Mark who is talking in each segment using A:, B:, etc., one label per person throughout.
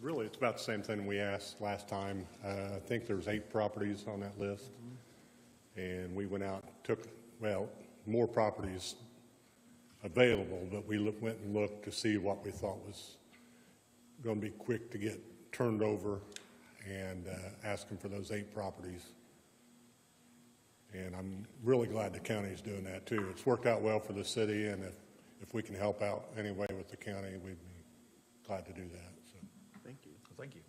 A: Really, it's about the same thing we asked last time. Uh, I think there's eight properties on that list. And we went out, took, well, more properties available, but we loo- went and looked to see what we thought was going to be quick to get turned over and uh, asked them for those eight properties. And I'm really glad the county's doing that too. It's worked out well for the city and if, if we can help out any way with the county, we'd be glad to do that. So
B: Thank you.
C: Thank you.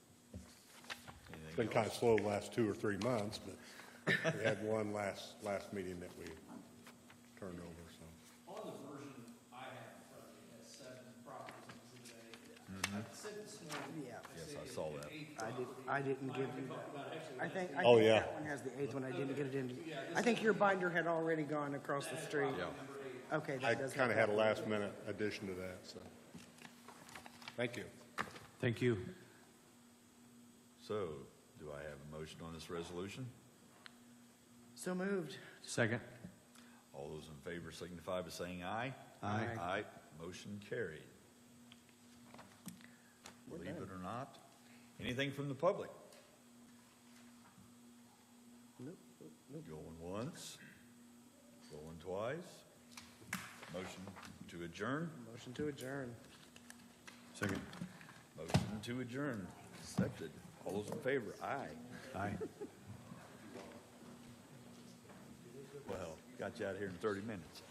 A: It's been kind of slow the last two or three months, but we had one last, last meeting that we turned over, so.
D: On the version I have in front of me, it has seven properties in Exhibit A. I said this morning.
B: Yeah.
C: Yes, I saw that.
B: I did, I didn't give you that. I think, I
A: Oh,
B: think
A: yeah.
B: that one has the eighth one, I didn't get it in. I think your binder had already gone across the street. Okay. that
A: I
B: does
A: kind of
B: have
A: had a
B: that.
A: last minute addition to that, so. Thank you.
E: Thank you.
C: So, do I have a motion on this resolution?
B: So moved.
E: Second.
C: All those in favor signify by saying aye.
E: Aye.
C: Aye, motion carried. Believe it or not, anything from the public?
B: Nope,
C: Going once, going twice. Motion to adjourn,
B: Motion to adjourn.
E: Second.
C: motion to adjourn, accepted. All those in favor, aye.
E: Aye.
C: Well, got you out of here in 30 minutes.